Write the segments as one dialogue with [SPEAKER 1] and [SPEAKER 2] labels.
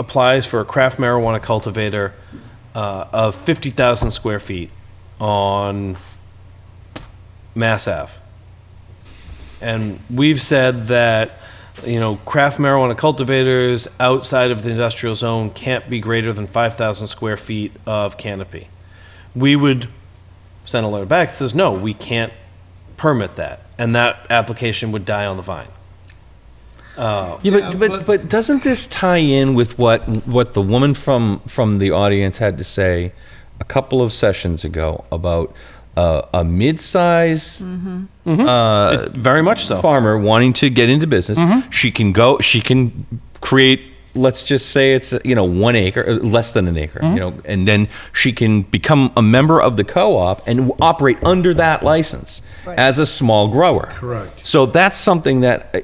[SPEAKER 1] applies for a craft marijuana cultivator uh, of 50,000 square feet on Mass Ave. And we've said that, you know, craft marijuana cultivators outside of the industrial zone can't be greater than 5,000 square feet of canopy. We would send a letter back that says, no, we can't permit that. And that application would die on the vine.
[SPEAKER 2] Yeah,
[SPEAKER 3] Yeah,
[SPEAKER 2] but, but,
[SPEAKER 3] but-
[SPEAKER 2] but doesn't this tie in with what, what the woman from, from the audience had to say a couple of sessions ago about uh, a mid-size
[SPEAKER 3] Mm-hmm.
[SPEAKER 2] uh,
[SPEAKER 1] Hmm. Very much so. Mm-hmm.
[SPEAKER 2] farmer wanting to get into business? She can go, she can create, let's just say it's, you know, one acre, uh, less than an
[SPEAKER 1] Mm-hmm.
[SPEAKER 2] acre, you know, and then she can become a member of the co-op and w- operate under that license as a small grower.
[SPEAKER 3] Correct.
[SPEAKER 2] So that's something that, uh,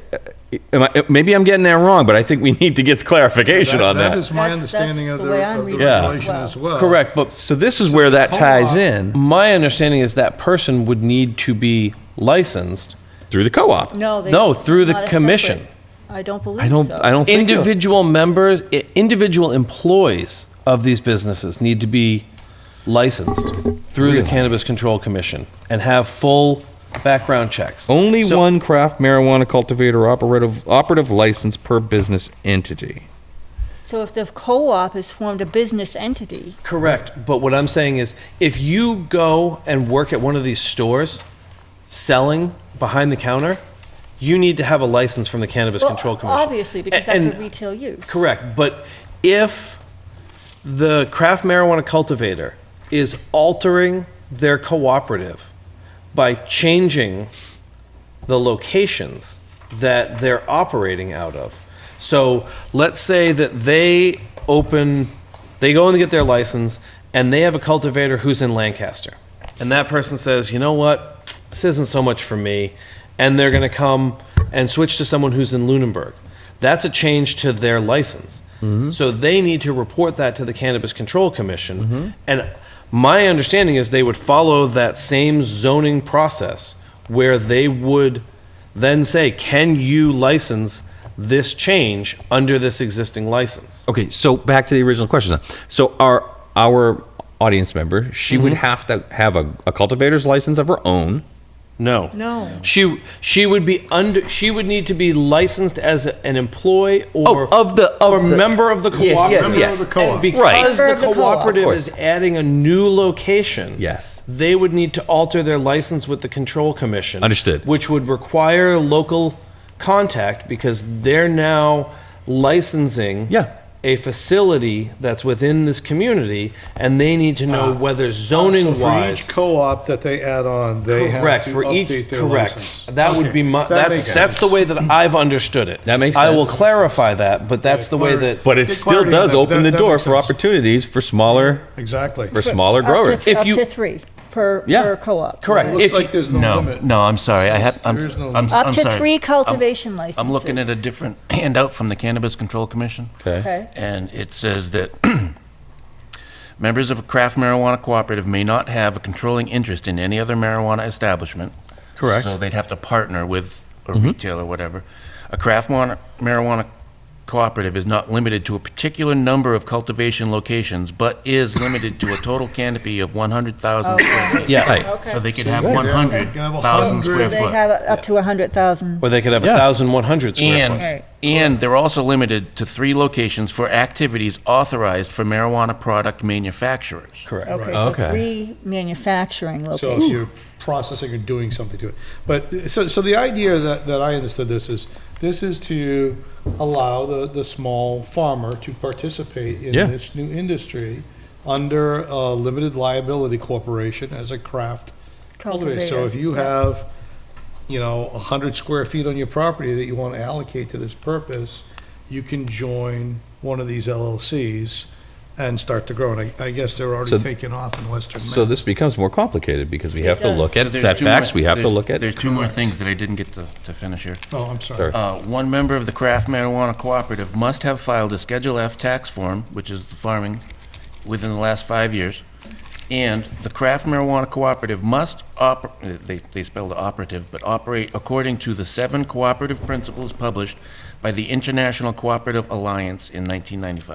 [SPEAKER 2] uh, am I- maybe I'm getting that wrong, but I think we need to get clarification on
[SPEAKER 3] That is
[SPEAKER 2] that.
[SPEAKER 3] my
[SPEAKER 4] That's- that's
[SPEAKER 3] understanding of
[SPEAKER 4] the
[SPEAKER 3] the
[SPEAKER 4] way I'm
[SPEAKER 3] of the
[SPEAKER 4] reading it
[SPEAKER 2] as
[SPEAKER 3] regulation
[SPEAKER 4] well.
[SPEAKER 3] as well.
[SPEAKER 1] Correct, but
[SPEAKER 2] So this is where that ties
[SPEAKER 3] Co-op.
[SPEAKER 2] in
[SPEAKER 1] My understanding is that person would need to be licensed.
[SPEAKER 2] through the co-op.
[SPEAKER 4] No, they.
[SPEAKER 1] No, through the
[SPEAKER 4] not a separate-
[SPEAKER 1] commission.
[SPEAKER 4] I don't believe so.
[SPEAKER 2] I don't, I don't think. you-
[SPEAKER 1] Individual members, i- individual employees of these businesses need to be licensed through the Cannabis Control Commission and have full background checks.
[SPEAKER 2] Only
[SPEAKER 1] So-
[SPEAKER 2] one craft marijuana cultivator operative, operative license per business entity.
[SPEAKER 4] So if the co-op has formed a business entity,
[SPEAKER 1] Correct, but what I'm saying is, if you go and work at one of these stores selling behind the counter, you need to have a license from the Cannabis
[SPEAKER 4] Well,
[SPEAKER 1] Control Commission.
[SPEAKER 4] obviously, because that's a
[SPEAKER 1] And-
[SPEAKER 4] retail use.
[SPEAKER 1] Correct, but if the craft marijuana cultivator is altering their cooperative by changing the locations that they're operating out of. So let's say that they open, they go and get their license, and they have a cultivator who's in Lancaster. And that person says, you know what, this isn't so much for me. And they're going to come and switch to someone who's in Lunenburg. That's a change to their license. So they need to report that to the Cannabis Control Commission. And my understanding is they would follow that same zoning process where they would then say, can you license this change under this existing license?
[SPEAKER 2] Okay, so back to the original question. then. So our our audience member, she would have to have a, a cultivator's license of her own.
[SPEAKER 1] No.
[SPEAKER 4] No.
[SPEAKER 1] She, she would be under, she would need to be licensed as an employee or.
[SPEAKER 2] Oh, of the- of
[SPEAKER 1] Or
[SPEAKER 2] the-
[SPEAKER 1] member of the
[SPEAKER 2] Yes,
[SPEAKER 1] cooperative.
[SPEAKER 2] yes,
[SPEAKER 3] Member of yes. the co-op.
[SPEAKER 1] And
[SPEAKER 2] Right.
[SPEAKER 1] Because
[SPEAKER 4] Member
[SPEAKER 1] the
[SPEAKER 4] of the co-op.
[SPEAKER 1] cooperative
[SPEAKER 2] Of course.
[SPEAKER 1] is adding a new location.
[SPEAKER 2] Yes.
[SPEAKER 1] They would need to alter their license with the control commission.
[SPEAKER 2] Understood.
[SPEAKER 1] Which would require local contact because they're now licensing.
[SPEAKER 2] Yeah.
[SPEAKER 1] A facility that's within this community and they need to know whether
[SPEAKER 3] So
[SPEAKER 1] zoning
[SPEAKER 3] for each
[SPEAKER 1] wise.
[SPEAKER 3] co-op that they add on, they have
[SPEAKER 1] Correct,
[SPEAKER 3] to
[SPEAKER 1] for each,
[SPEAKER 3] update their license.
[SPEAKER 1] correct. That would be my, that's, that's the way that I've understood it.
[SPEAKER 2] That makes
[SPEAKER 1] I will
[SPEAKER 2] sense.
[SPEAKER 1] clarify that, but that's the way that.
[SPEAKER 2] But it
[SPEAKER 3] Good
[SPEAKER 2] still
[SPEAKER 3] clarity on
[SPEAKER 2] does
[SPEAKER 3] that.
[SPEAKER 2] open
[SPEAKER 3] That-
[SPEAKER 2] the
[SPEAKER 3] that
[SPEAKER 2] door
[SPEAKER 3] makes
[SPEAKER 2] for
[SPEAKER 3] sense.
[SPEAKER 2] opportunities for smaller
[SPEAKER 3] Exactly.
[SPEAKER 2] for smaller
[SPEAKER 4] up to-
[SPEAKER 2] growers.
[SPEAKER 1] If
[SPEAKER 4] Up
[SPEAKER 1] you-
[SPEAKER 4] to three per,
[SPEAKER 2] Yeah.
[SPEAKER 4] per co-op.
[SPEAKER 1] Correct.
[SPEAKER 3] It looks
[SPEAKER 1] If-
[SPEAKER 3] like there's no
[SPEAKER 5] No,
[SPEAKER 3] limit.
[SPEAKER 5] no, I'm sorry, I have, I'm,
[SPEAKER 3] There is no
[SPEAKER 5] I'm,
[SPEAKER 3] limit.
[SPEAKER 4] Up
[SPEAKER 5] I'm
[SPEAKER 4] to
[SPEAKER 5] sorry.
[SPEAKER 4] three
[SPEAKER 5] I'm-
[SPEAKER 4] cultivation
[SPEAKER 5] I'm looking at a
[SPEAKER 4] licenses.
[SPEAKER 5] different handout from the Cannabis Control Commission.
[SPEAKER 4] Okay.
[SPEAKER 5] And it says that members of a craft marijuana cooperative may not have a controlling interest in any other marijuana establishment.
[SPEAKER 2] Correct.
[SPEAKER 5] So they'd have to partner with a retail or whatever. A craft mar- marijuana cooperative is not limited to a particular number of cultivation locations, but is limited to a total canopy of 100,000 square
[SPEAKER 4] Oh.
[SPEAKER 5] feet.
[SPEAKER 1] Yeah.
[SPEAKER 4] Okay.
[SPEAKER 5] So they could have
[SPEAKER 3] yeah, you can have
[SPEAKER 5] 100,000
[SPEAKER 3] 100.
[SPEAKER 5] square
[SPEAKER 4] So they
[SPEAKER 5] foot.
[SPEAKER 4] have up to a hundred thousand.
[SPEAKER 1] Or they could have a
[SPEAKER 2] Yeah.
[SPEAKER 1] thousand one hundred square foot.
[SPEAKER 5] And, and they're also limited to three locations for activities authorized for marijuana product manufacturers.
[SPEAKER 1] Correct.
[SPEAKER 4] Okay, so
[SPEAKER 2] Okay.
[SPEAKER 4] three manufacturing
[SPEAKER 3] So if
[SPEAKER 4] locations.
[SPEAKER 3] you're processing or doing something to it. But, so, so the idea that, that I understood this is, this is to allow the, the small farmer to participate in
[SPEAKER 2] Yeah.
[SPEAKER 3] this new industry under a limited liability corporation as a craft cultivator. So if you have, you know, a hundred square feet on your property that you want to allocate to this purpose, you can join one of these LLCs and start to grow. And I, I guess they're
[SPEAKER 2] So-
[SPEAKER 3] already taking off in Western Mass.
[SPEAKER 2] So this becomes more complicated because we have to
[SPEAKER 4] does.
[SPEAKER 2] look
[SPEAKER 5] So
[SPEAKER 2] at
[SPEAKER 5] there's two more-
[SPEAKER 2] setbacks, we have to
[SPEAKER 5] there's-
[SPEAKER 2] look at.
[SPEAKER 5] There's two more things that I didn't get to, to finish here.
[SPEAKER 3] Oh, I'm
[SPEAKER 2] Sorry.
[SPEAKER 3] sorry.
[SPEAKER 5] Uh, One member of the Craft Marijuana Cooperative must have filed a Schedule F tax form, which is the farming, within the last five years. And the Craft Marijuana Cooperative must, oper- uh, they they spelled operative, but operate according to the seven cooperative principles published by the International Cooperative Alliance in 1995.